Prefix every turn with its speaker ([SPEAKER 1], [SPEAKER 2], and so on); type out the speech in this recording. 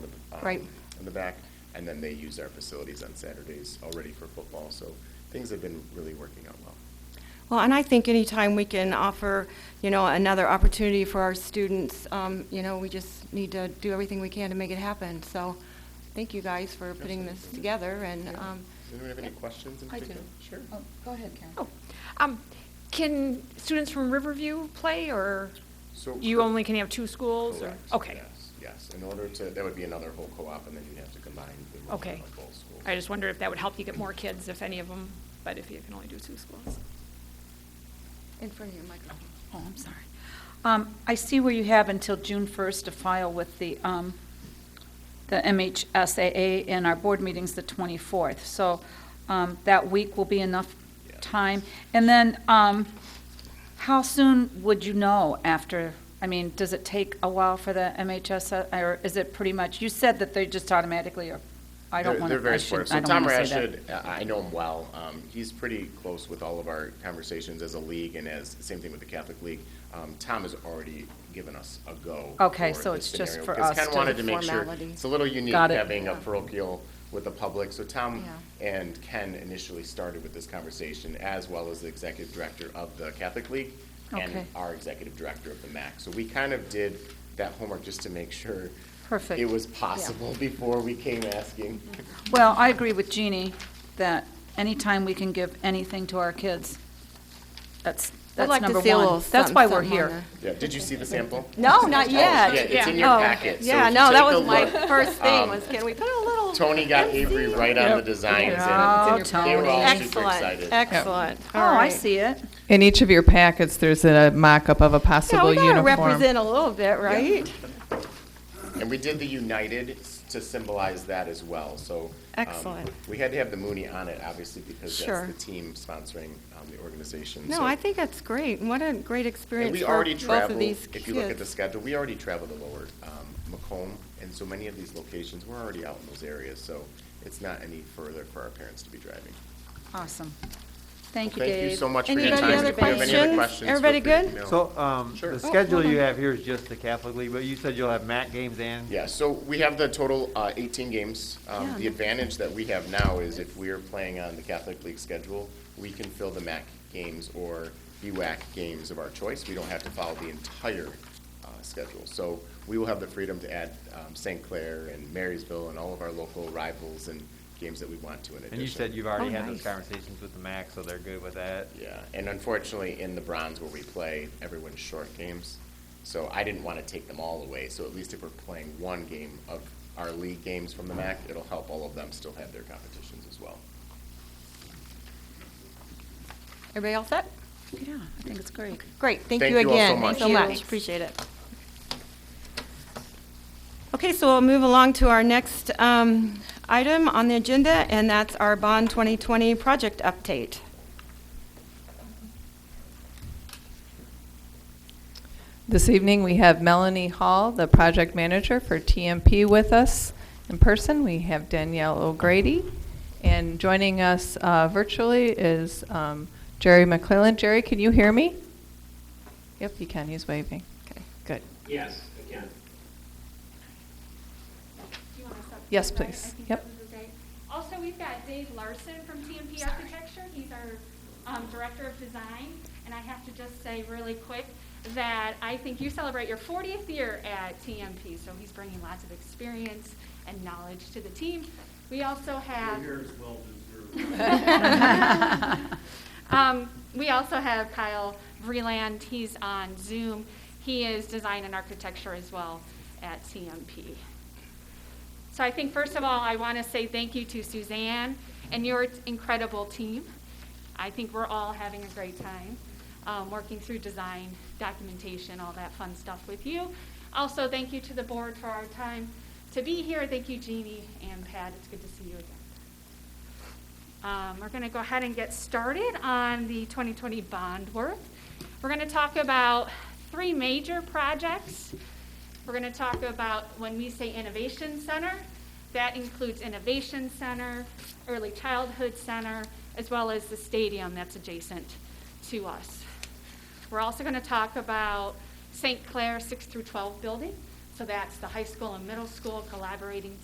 [SPEAKER 1] um,
[SPEAKER 2] Right.
[SPEAKER 1] In the back, and then they use our facilities on Saturdays already for football, so things have been really working out well.
[SPEAKER 2] Well, and I think anytime we can offer, you know, another opportunity for our students, um, you know, we just need to do everything we can to make it happen. So, thank you guys for putting this
[SPEAKER 1] Absolutely.
[SPEAKER 2] together and,
[SPEAKER 1] Yeah.
[SPEAKER 2] um,
[SPEAKER 1] Does anyone have any questions in
[SPEAKER 3] I do.
[SPEAKER 1] particular? Sure.
[SPEAKER 3] Oh, Go ahead, Karen.
[SPEAKER 4] Oh, um, Can students from Riverview play, or
[SPEAKER 1] So
[SPEAKER 4] you
[SPEAKER 1] cor-
[SPEAKER 4] only can have two schools? or-
[SPEAKER 1] Correct,
[SPEAKER 4] Okay.
[SPEAKER 1] yes, Yes, in order to, that would be another whole co-op, and then you'd have to combine the enrollment
[SPEAKER 4] Okay.
[SPEAKER 1] of both schools.
[SPEAKER 4] I just wondered if that would help you get more kids, if any of them, but if you can only do two schools.
[SPEAKER 2] in front of your microphone.
[SPEAKER 3] Oh, I'm sorry. Um, I see where you have until June 1st to file with the, um, the MHSAA, and our board meeting's the 24th. So um, that week will be enough
[SPEAKER 1] Yeah.
[SPEAKER 3] time. And then, um, how soon would you know after, I mean, does it take a while for the MHS, or is it pretty much, you said that they just automatically, or, I don't
[SPEAKER 1] They're-
[SPEAKER 3] want
[SPEAKER 1] They're
[SPEAKER 3] to, I
[SPEAKER 1] very
[SPEAKER 3] should,
[SPEAKER 1] supportive.
[SPEAKER 3] I
[SPEAKER 1] So
[SPEAKER 3] don't
[SPEAKER 1] Tom
[SPEAKER 3] want to say that.
[SPEAKER 1] Rashid, uh, I know him well. Um, He's pretty close with all of our conversations as a league and as, same thing with the Catholic League. Um, Tom has already given us a go.
[SPEAKER 3] Okay,
[SPEAKER 1] for
[SPEAKER 3] so
[SPEAKER 1] this
[SPEAKER 3] it's just
[SPEAKER 1] scenario,
[SPEAKER 3] for
[SPEAKER 1] because
[SPEAKER 3] us
[SPEAKER 1] Ken
[SPEAKER 3] to-
[SPEAKER 1] wanted to make sure,
[SPEAKER 2] Formality.
[SPEAKER 1] it's a little unique
[SPEAKER 3] Got it.
[SPEAKER 1] having a parochial with the public. So Tom
[SPEAKER 2] Yeah.
[SPEAKER 1] and Ken initially started with this conversation, as well as the executive director of the Catholic League and
[SPEAKER 3] Okay.
[SPEAKER 1] our executive director of the MAC. So we kind of did that homework just to make sure
[SPEAKER 3] Perfect.
[SPEAKER 1] it was possible before we came asking.
[SPEAKER 3] Well, I agree with Jeannie that anytime we can give anything to our kids, that's, that's
[SPEAKER 2] like to
[SPEAKER 3] number
[SPEAKER 2] see a little
[SPEAKER 3] one. That's why we're
[SPEAKER 2] something, something
[SPEAKER 3] here.
[SPEAKER 2] on
[SPEAKER 1] Yeah, did you see the sample?
[SPEAKER 2] No, not yet.
[SPEAKER 1] Oh, Yeah, it's in your
[SPEAKER 2] Oh,
[SPEAKER 1] packet. so if
[SPEAKER 2] Yeah,
[SPEAKER 1] you
[SPEAKER 2] no, that
[SPEAKER 1] take a
[SPEAKER 2] was my
[SPEAKER 1] look,
[SPEAKER 2] first thing,
[SPEAKER 1] um,
[SPEAKER 2] was can we put a little?
[SPEAKER 1] Tony got Avery right on the designs,
[SPEAKER 3] Yeah,
[SPEAKER 1] and they were all super excited.
[SPEAKER 2] Excellent, excellent.
[SPEAKER 3] Oh,
[SPEAKER 2] All
[SPEAKER 3] I
[SPEAKER 2] right.
[SPEAKER 3] see it.
[SPEAKER 5] In each of your packets, there's a mock-up of a
[SPEAKER 2] Yeah,
[SPEAKER 5] possible
[SPEAKER 2] we gotta
[SPEAKER 5] uniform.
[SPEAKER 2] represent a little bit, right?
[SPEAKER 1] And we did the United s- to symbolize that as well, so. um,
[SPEAKER 2] Excellent.
[SPEAKER 1] We had to have the Mooney on it, obviously, because
[SPEAKER 2] Sure.
[SPEAKER 1] that's the team sponsoring um, the organization.
[SPEAKER 2] No,
[SPEAKER 1] so-
[SPEAKER 2] I think that's great. and What a great
[SPEAKER 1] And
[SPEAKER 2] experience
[SPEAKER 1] we
[SPEAKER 2] for
[SPEAKER 1] already
[SPEAKER 2] both of
[SPEAKER 1] travel,
[SPEAKER 2] these kids.
[SPEAKER 1] if you look at the schedule, we already travel to Lower um, Macomb, and so many of these locations, we're already out in those areas, so it's not any further for our parents to be driving.
[SPEAKER 3] Awesome. Thank you, Dave.
[SPEAKER 1] Thank you so much for your
[SPEAKER 2] Anybody
[SPEAKER 1] time.
[SPEAKER 2] other
[SPEAKER 1] If you have any other questions, feel
[SPEAKER 2] Everybody
[SPEAKER 1] free to
[SPEAKER 2] good?
[SPEAKER 1] email.
[SPEAKER 6] So, um,
[SPEAKER 1] Sure.
[SPEAKER 6] the
[SPEAKER 1] Oh,
[SPEAKER 6] schedule
[SPEAKER 2] hold
[SPEAKER 6] you
[SPEAKER 2] on.
[SPEAKER 6] have here is just the Catholic League, but you said you'll have MAC games and?
[SPEAKER 1] Yeah, so we have the total uh, 18 games. Um,
[SPEAKER 2] Yeah.
[SPEAKER 1] The advantage that we have now is if we are playing on the Catholic League schedule, we can fill the MAC games or BWAC games of our choice. We don't have to follow the entire uh, schedule. So we will have the freedom to add um, St. Clair and Marysville and all of our local rivals and games that we want to in addition.
[SPEAKER 6] And you said you've
[SPEAKER 2] Oh,
[SPEAKER 6] already had
[SPEAKER 2] nice.
[SPEAKER 6] those conversations with the MAC, so they're good with that?
[SPEAKER 1] Yeah, and unfortunately, in the bronze where we play, everyone's short games. So I didn't want to take them all away. So at least if we're playing one game of our league games from the MAC, it'll help all of them still have their competitions as well.
[SPEAKER 2] Everybody all set?
[SPEAKER 3] Yeah, I think it's great.
[SPEAKER 2] Great, thank
[SPEAKER 1] Thank
[SPEAKER 2] you
[SPEAKER 1] you all so
[SPEAKER 2] again.
[SPEAKER 1] much.
[SPEAKER 2] so
[SPEAKER 1] Thank you.
[SPEAKER 2] much, appreciate it. Okay, so we'll move along to our next um, item on the agenda, and that's our Bond 2020 project update.
[SPEAKER 5] This evening, we have Melanie Hall, the project manager for TMP with us in person. We have Danielle O'Grady. And joining us uh, virtually is um, Jerry McClellan. Jerry, can you hear me? Yep, you can. He's waving. Okay, good.
[SPEAKER 7] Yes, again.
[SPEAKER 8] Do you want to stop?
[SPEAKER 5] Yes,
[SPEAKER 8] Right,
[SPEAKER 5] please.
[SPEAKER 8] I
[SPEAKER 5] Yep.
[SPEAKER 8] think that would be great. Also, we've got Dave Larson from TMP Architecture. He's our um, Director of Design. And I have to just say really quick that I think you celebrate your 40th year at TMP. So he's bringing lots of experience and knowledge to the team. We also have.
[SPEAKER 7] Your hair is well deserved.
[SPEAKER 8] Um, we also have Kyle Vreeland. He's on Zoom. He is design and architecture as well at CMP. So I think first of all, I want to say thank you to Suzanne and your incredible team. I think we're all having a great time um, working through design, documentation, all that fun stuff with you. Also, thank you to the board for our time to be here. Thank you, Jeannie and Pat. It's good to see you again. Um, We're going to go ahead and get started on the 2020 bond work. We're going to talk about three major projects. We're going to talk about, when we say Innovation Center, that includes Innovation Center, Early Childhood Center, as well as the stadium that's adjacent to us. We're also going to talk about St. Clair 6 through 12 building. So that's the high school and middle school collaborating